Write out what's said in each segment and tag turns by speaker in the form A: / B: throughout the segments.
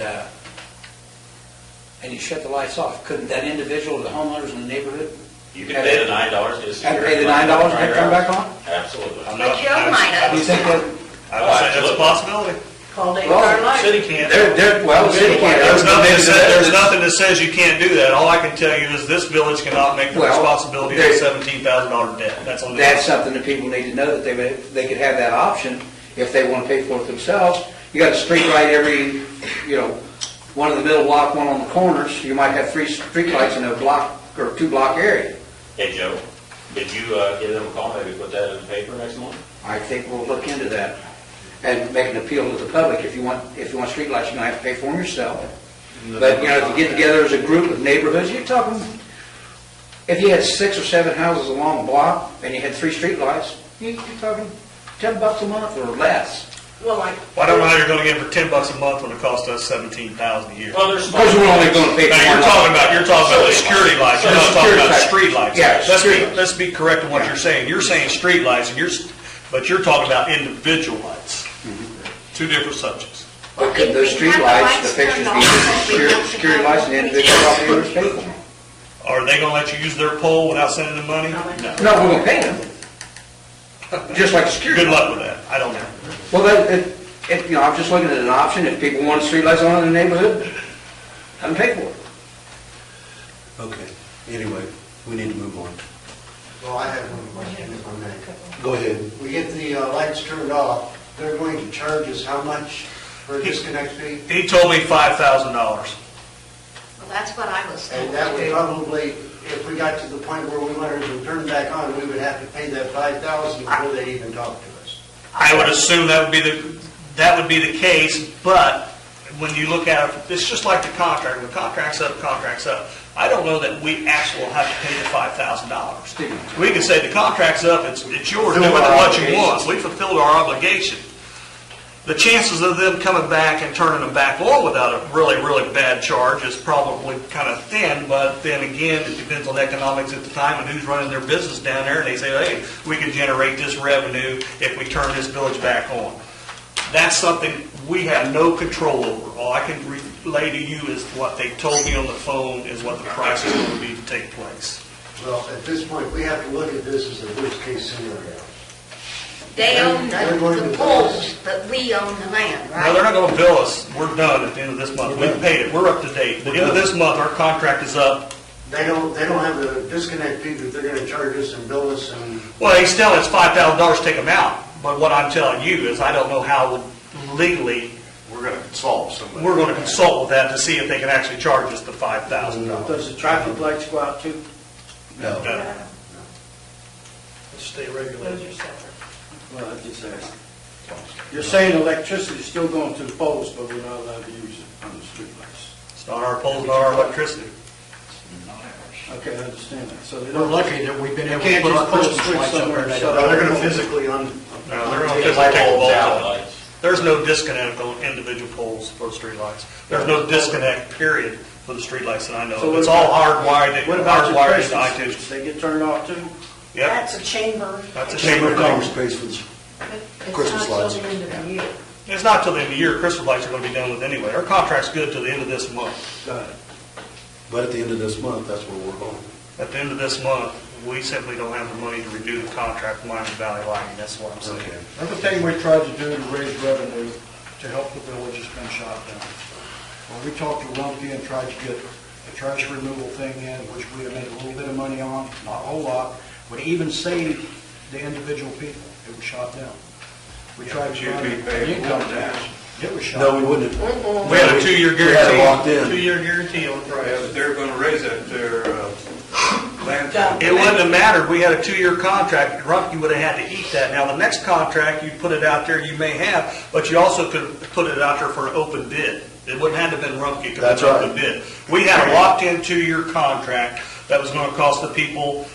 A: uh, and you shut the lights off, couldn't that individual, the homeowners in the neighborhood,
B: You can pay the nine dollars, just.
A: had to pay the nine dollars and then come back on?
B: Absolutely.
C: I'm
D: But
C: not-
D: Joe
C: I-
D: might have.
A: Do you think that,
C: I would say that's a possibility.
D: Call Dave
A: Well,
D: Carlisle.
C: City can't.
A: There- there- well, the city can't.
C: There's nothing, that says- there's
A: There's-
C: nothing that says you can't do that. All I can tell you is this village cannot make the
A: Well,
C: responsibility of
A: there-
C: a seventeen thousand dollar debt. That's all it
A: that's
C: is.
A: something that people need to know, that they, would- they could have that option if they want to pay for it themselves. You got a street light every, you know, one in the middle block, one on the corners, you might have three street lights in a block, or two block area.
B: Hey, Joe, did you, uh, give them a call, maybe put that in the paper next month?
A: I think we'll look into that and make an appeal to the public. If you want, if you want streetlights, you're gonna have to pay for them yourself. But, you know, if you get together as a group of neighborhoods, you're talking, if you had six or seven houses along a block and you had three streetlights, you- you're talking ten bucks a month or less.
D: Well, like.
C: Well, I don't know how you're gonna get it for ten bucks a month when it costs us seventeen thousand a year.
B: Well, there's.
A: Because we're only gonna pay for
C: Now,
A: one.
C: you're talking about, you're talking about the
B: Street
C: security lights, you're
A: So
C: not talking about
A: security
C: street
A: lights.
C: lights.
A: Yeah,
C: Let's be,
A: street-
C: let's be correct in what
A: Yeah.
C: you're saying. You're saying street lights, and you're, s- but you're talking about individual lights.
A: Mm-hmm.
C: Two different subjects.
A: But could those
D: If we had the
A: streetlights, the
D: lights
A: fixtures
D: turned
A: be
D: off,
A: used
D: we'd have
A: security,
D: to
A: security
D: have-
A: lights and individual property owners pay for them?
C: Are they gonna let you use their pole without sending them money? No.
A: No, we're gonna pay them. Just like security.
C: Good luck with that. I don't know.
A: Well, that, it, it, you know, I'm just looking at an option, if people want streetlights on in the neighborhood, have them pay for it.
E: Okay, anyway, we need to move on.
F: Well, I have one question if I may.
E: Go ahead.
F: We get the uh, lights turned off, they're going to charge us how much for a disconnect fee?
C: He told me five thousand dollars.
D: Well, that's what I was
F: And
D: saying.
F: that would probably, if we got to the point where we wanted to turn back on, we would have to pay that five thousand before they even talk to us.
C: I would assume that would be the, that would be the case, but when you look at it, it's just like the contract, when the contract's up, contract's up. I don't know that we actually will have to pay the five thousand dollars. We can say the contract's up, it's, it's yours, do with it what you want, we fulfilled our obligation. The chances of them coming back and turning them back on without a really, really bad charge is probably kind of thin, but then again, it depends on economics at the time and who's running their business down there, and they say, hey, we can generate this revenue if we turn this village back on. That's something we have no control over. All I can relay to you is what they told me on the phone is what the price is going to be to take place.
F: Well, at this point, we have to look at this as a worst-case scenario.
D: They own
F: They're going
D: the
F: to
D: the
F: the
D: poles,
F: poles.
D: but we own the land,
C: No, they're
D: right?
C: not gonna bill us. We're done at the end of this month. We paid it. We're up to date. At the end of this month, our contract is up.
F: They don't, they don't have a disconnect fee that they're gonna charge us and bill us and,
C: Well, he's telling us five thousand dollars to take them out, but what I'm telling you is I don't know how legally
G: We're gonna consult somebody.
C: we're gonna consult with that to see if they can actually charge us the five thousand
F: uh,
C: dollars.
H: Does the traffic lights go out too?
E: No,
H: Stay regulated. Well, I just asked. You're saying electricity's still going to the poles, but we're not allowed to use it on the streetlights.
C: It's not our poles, not our electricity.
H: Okay, I understand that. So they
G: We're
H: don't,
G: lucky that we've been
H: you
G: able to
H: can't
G: put
H: just
G: our Christmas
H: pull a switch
G: lights up
H: somewhere
G: there.
H: and
G: now.
H: shut
F: they're
H: it
F: gonna
H: off.
F: physically un.
C: No, they're gonna
F: un-
C: physically take the poles
B: Out
C: out.
B: lights.
C: There's no disconnect on individual poles for the streetlights. There's no disconnect, period, for the streetlights that I know
H: So
C: of.
H: what
C: It's all
H: about-
C: hardwired,
H: What about your
C: hardwired into
H: Christmas?
C: iTunes.
H: switches? They get turned off too?
C: Yep,
D: a chamber.
C: that's a
E: Chamber
C: chamber
E: of Commerce
C: thing.
E: pays for this. Christmas lights.
C: It's not till the end of the year, Christmas lights are gonna be done with anyway. Our contract's good till the end of this month.
H: Got it.
E: but at the end of this month, that's where we're going.
C: At the end of this month, we simply don't have the money to redo the contract with Miami Valley Lighting, that's what I'm saying.
E: Okay.
G: Everything we tried to do to raise revenue to help the village has been shot down. When we talked to Rumpke and tried to get a trash removal thing in, which we have made a little bit of money on, not a whole lot, would even save the individual people, it was shot down. We tried to. You'd be Income tax, it was shot.
E: No, we wouldn't.
C: We had a two-year
E: We had it locked
C: guarantee,
E: in.
C: two-year guarantee on the price.
I: They're going to raise that, their uh, land.
C: It wouldn't have mattered, we had a two-year contract, Rumpke would have had to eat that. Now, the next contract, you put it out there, you may have, but you also could have put it out there for an open bid. It wouldn't have been Rumpke, it could have
E: That's
C: been an open
E: right.
C: bid. We had a locked-in two-year contract that was gonna cost the people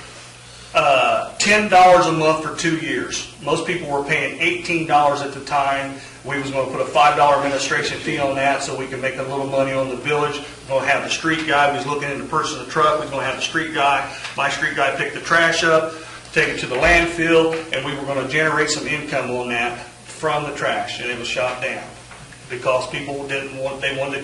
C: uh, $10 a month for two years. Most people were paying $18 at the time. We was going to put a $5 administration fee on that so we could make a little money on the village. We're Going to have the street guy, we was looking into purchasing a truck, we was going to have the street guy, my street guy pick the trash up, take it to the landfill, and we were going to generate some income on that from the trash, and it was shot down because people didn't want, they wanted to